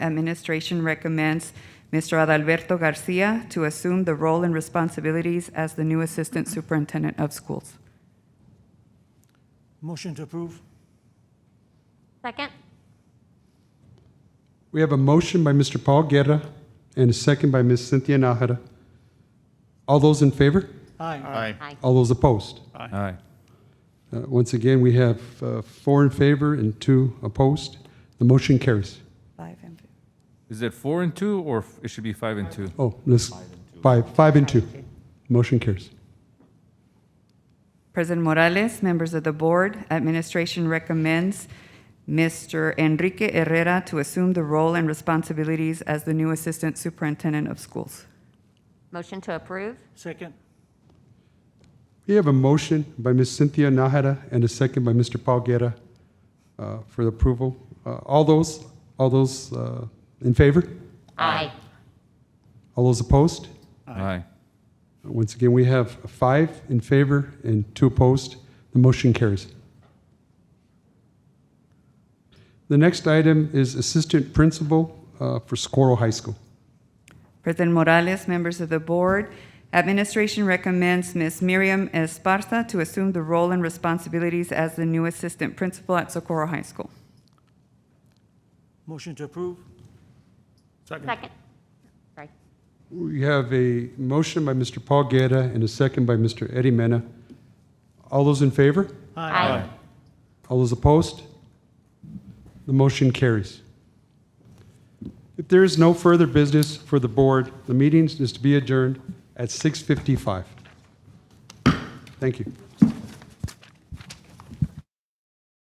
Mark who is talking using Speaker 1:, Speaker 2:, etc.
Speaker 1: administration recommends Mr. Adalberto Garcia to assume the role and responsibilities as the new Assistant Superintendent of Schools.
Speaker 2: Motion to approve.
Speaker 3: Second?
Speaker 4: We have a motion by Mr. Paul Guerra and a second by Ms. Cynthia Nahara. All those in favor?
Speaker 2: Aye.
Speaker 5: Aye.
Speaker 3: Aye.
Speaker 4: All those opposed?
Speaker 5: Aye.
Speaker 4: Uh, Once again, we have uh, four in favor and two opposed. The motion carries.
Speaker 1: Five and fifth.
Speaker 5: Is it four and two, or f- it should be five and two?
Speaker 4: Oh, let's, five, five and two. Motion carries.
Speaker 1: President Morales, members of the board, administration recommends Mr. Enrique Herrera to assume the role and responsibilities as the new Assistant Superintendent of Schools.
Speaker 3: Motion to approve?
Speaker 2: Second.
Speaker 4: We have a motion by Ms. Cynthia Nahara and a second by Mr. Paul Guerra uh, for the approval. Uh, All those, all those uh, in favor?
Speaker 3: Aye.
Speaker 4: All those opposed?
Speaker 5: Aye.
Speaker 4: Once again, we have five in favor and two opposed. The motion carries. The next item is Assistant Principal uh, for Socorro High School.
Speaker 1: President Morales, members of the board, administration recommends Ms. Miriam Esparza to assume the role and responsibilities as the new Assistant Principal at Socorro High School.
Speaker 2: Motion to approve.
Speaker 3: Second? Sorry.
Speaker 4: We have a motion by Mr. Paul Guerra and a second by Mr. Eddie Mena. All those in favor?
Speaker 3: Aye.
Speaker 4: All those opposed? The motion carries. If there is no further business for the board, the meeting is to be adjourned at 6:55. Thank you.